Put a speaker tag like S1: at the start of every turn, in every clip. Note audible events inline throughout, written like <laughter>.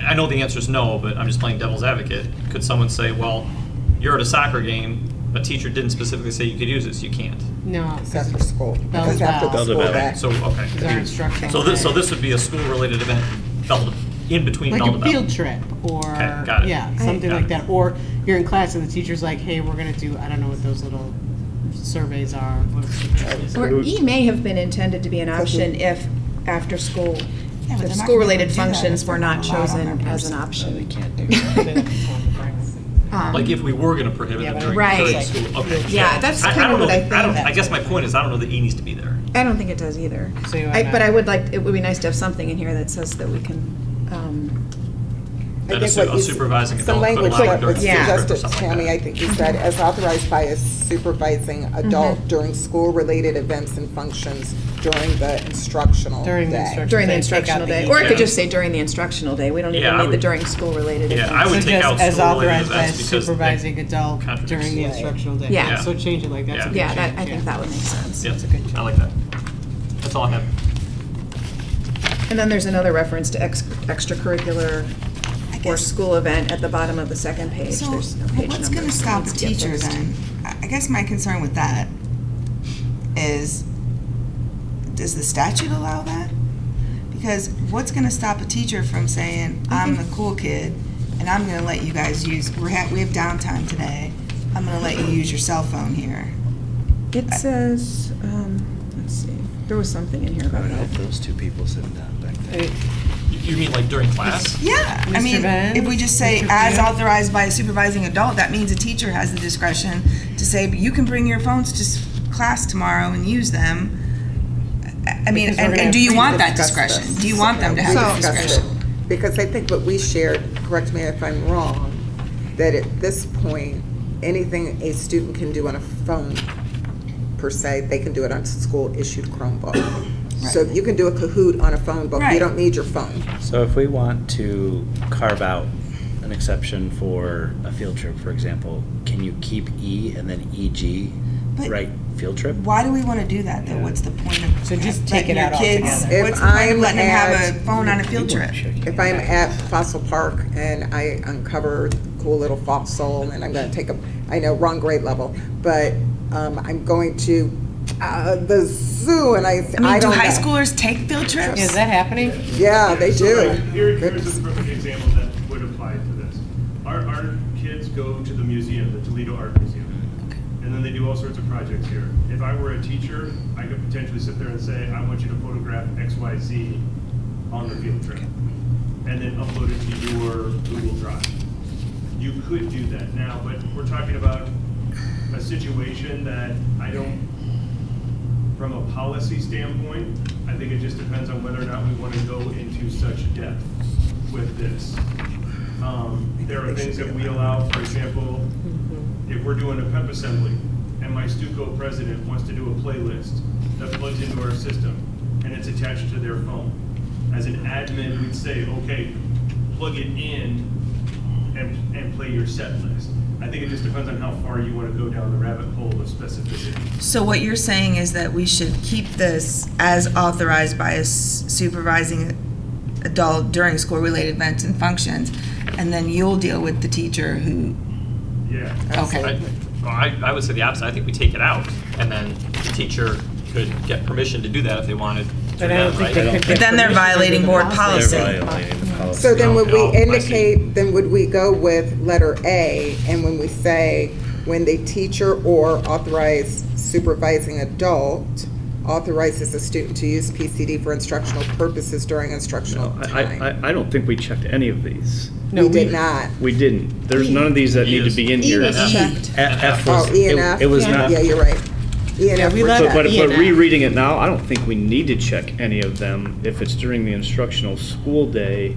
S1: I know the answer is no, but I'm just playing devil's advocate. Could someone say, well, you're at a soccer game, a teacher didn't specifically say you could use this, you can't?
S2: No,
S3: It's after school.
S2: Bells
S3: It's after the
S2: bells.
S3: school
S4: Bells
S3: day.
S1: So, okay.
S2: These are instructional
S1: So this, so
S2: days.
S1: this would be a school-related event, bell to- in between
S2: like
S1: bell to
S2: a
S1: bell.
S2: field trip or,
S1: Okay, got it.
S2: yeah, something
S1: Got
S2: like
S1: it.
S2: that. Or you're in class and the teacher's like, hey, we're gonna do, I don't know what those little surveys are. What are
S1: <laughs>
S2: those?
S5: Or E may have been intended to be an option if after school, if school-related functions were not chosen as an option. <laughs> Um,
S1: Like if we were gonna prohibit
S2: Yeah,
S1: them
S2: but
S1: during,
S5: Right.
S1: during school, okay.
S5: Yeah, that's
S1: I- I
S5: kind
S1: don't
S5: of
S1: know-
S5: what I think
S1: don't- I
S5: that's
S1: guess my point is, I don't know that E needs to be there.
S5: I don't think it does either.
S2: So you
S5: I-
S2: wanna-
S5: But I would like, it would be nice to have something in here that says that we can, um,
S3: I
S1: That a
S3: think
S1: su-
S3: what
S1: a
S3: you-
S1: supervising adult could
S3: Some
S1: allow
S3: language that
S1: during
S3: was
S5: a field trip or
S3: suggested,
S1: something like
S3: Tammy,
S1: that.
S3: I think you said, as authorized by a supervising adult during school-related events and functions during the instructional
S2: During the
S3: day.
S2: instruction-
S5: during the
S2: Take out the
S5: instructional day.
S2: E.
S5: Or it
S1: Yeah.
S5: could just say during the instructional day. We don't
S1: Yeah,
S5: even
S1: I
S5: need the
S1: would-
S5: during school-related.
S1: Yeah, I would
S2: So
S1: take
S2: just
S1: out
S2: as
S1: school-related
S2: authorized by
S1: events because they-
S2: supervising adult during the
S1: contradicts.
S2: instructional day.
S5: Yeah.
S2: So change it like that's a
S1: Yeah.
S2: good
S5: Yeah, that, I
S2: change,
S5: think
S2: yeah.
S5: that would make sense.
S1: Yeah,
S2: That's a good
S1: I like that. That's all I have.
S5: And then there's another reference to ex- extracurricular or
S6: guess-
S5: school event at the bottom of the second page.
S6: So,
S5: There's no
S6: but
S5: page
S6: what's
S5: number,
S6: gonna
S5: so it
S6: stop
S5: needs
S6: the
S5: to get
S6: teacher
S5: fixed.
S6: then? I I guess my concern with that is, does the statute allow that? Because what's gonna stop a teacher from saying, I'm the cool kid, and I'm gonna let you guys use, we're ha we have downtime today, I'm gonna let you use your cell phone here.
S5: It says, um, let's see, there was something in here
S4: I
S5: about
S4: would hope
S5: that.
S4: those two people sitting down back there.
S1: You- You mean like during class?
S6: Yeah, I
S2: Mr.
S6: mean,
S2: Venn?
S6: if we just say
S2: Mr.
S6: as
S2: Venn?
S6: authorized by a supervising adult, that means a teacher has the discretion to say, you can bring your phones to s- class tomorrow and use them. I- I mean,
S2: Because we're
S6: and,
S2: gonna
S6: and do you
S3: We
S6: want that
S3: discussed
S6: discretion?
S3: this.
S6: Do you want them to have that
S3: We discussed
S6: discretion?
S3: it, Because I think what we shared, correct me if I'm wrong, that at this point, anything a student can do on a phone, per se, they can do it on school-issued Chromebook. So you can do a Kahoot on a phone book, you
S6: Right.
S3: don't need your phone.
S7: So if we want to carve out an exception for a field trip, for example, can you keep E and then EG,
S6: But-
S7: right, field trip?
S6: Why do we want to do that though? What's the point of?
S2: So just
S6: letting
S2: take it
S6: your
S2: out
S6: kids-
S2: altogether.
S3: If
S6: What's the point of
S3: I'm
S6: letting them have a
S3: at-
S6: phone on a field
S7: You
S6: trip?
S7: weren't sure.
S3: If I'm at Fossil Park and I uncover cool little fossil and I'm going to take a, I know, wrong grade level, but um, I'm going to uh, the zoo and I,
S6: I
S3: I
S6: mean, do
S3: don't
S6: high
S3: know.
S6: schoolers take field trips?
S2: Is that happening?
S3: Yeah, they
S8: So,
S3: do.
S8: like, Here, here's a
S3: Goodness.
S8: perfect example that would apply to this. Our, our kids go to the museum, the Toledo Art Museum, and then they do all sorts of projects here. If I were a teacher, I could potentially sit there and say, I want you to photograph X, Y, Z on the field trip, and then upload it to your Google Drive. You could do that now, but we're talking about a situation that I don't from a policy standpoint, I think it just depends on whether or not we want to go into such depth with this. Um, There are things that we allow, for example, if we're doing a PEP assembly, and my Stuco president wants to do a playlist that plugs into our system, and it's attached to their phone. As an admin, we'd say, okay, plug it in, and, and play your set list. I think it just depends on how far you want to go down the rabbit hole of specificity.
S6: So what you're saying is that we should keep this as authorized by a s- supervising adult during school-related events and functions, and then you'll deal with the teacher who,
S8: Yeah.
S6: okay.
S1: I, well, I I would say the opposite. I think we take it out and then the teacher could get permission to do that if they wanted to,
S2: But I don't
S1: then,
S2: think they
S1: right?
S2: could get
S6: But then they're
S2: permission to do
S6: violating
S2: the
S6: board policy.
S7: They're violating the policy.
S3: So then would we
S1: No, no, I see.
S3: indicate, then would we go with letter A? And when we say, when the teacher or authorized supervising adult authorizes a student to use PCD for instructional purposes during instructional
S9: No, I, I-
S3: time?
S9: I, I don't think we checked any of these.
S3: We did not.
S9: We didn't. There's none of these that need to be in here.
S3: E
S1: Yes.
S9: F
S1: checked.
S9: F was,
S3: Oh, E and F?
S9: it it was not.
S3: Yeah, you're right. E and
S2: Yeah,
S3: F
S2: we
S3: were
S2: let
S9: But,
S3: checked.
S9: but
S2: E
S9: but
S2: and F.
S9: rereading it now, I don't think we need to check any of them. If it's during the instructional school day,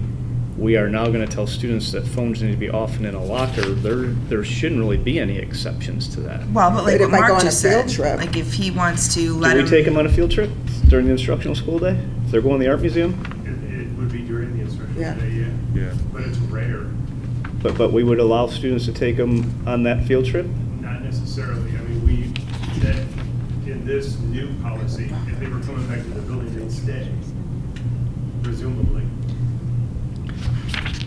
S9: we are now gonna tell students that phones need to be off and in a locker. There, there shouldn't really be any exceptions to that.
S6: Well, but like
S3: But if
S6: what
S3: I go
S6: Mark
S3: on a
S6: just said,
S3: field trip-
S6: like if he wants to let
S9: Do we take
S6: him,
S9: them on a field trip during the instructional school day? If they're going to the art museum?
S8: It, it would be during the instructional
S3: Yeah.
S8: day, yeah.
S4: Yeah.
S8: But it's rare,
S9: But, but we would allow students to take them on that field trip?
S8: not necessarily. I mean, we, that, in this new policy, if they were coming back to the building, they'd stay, presumably.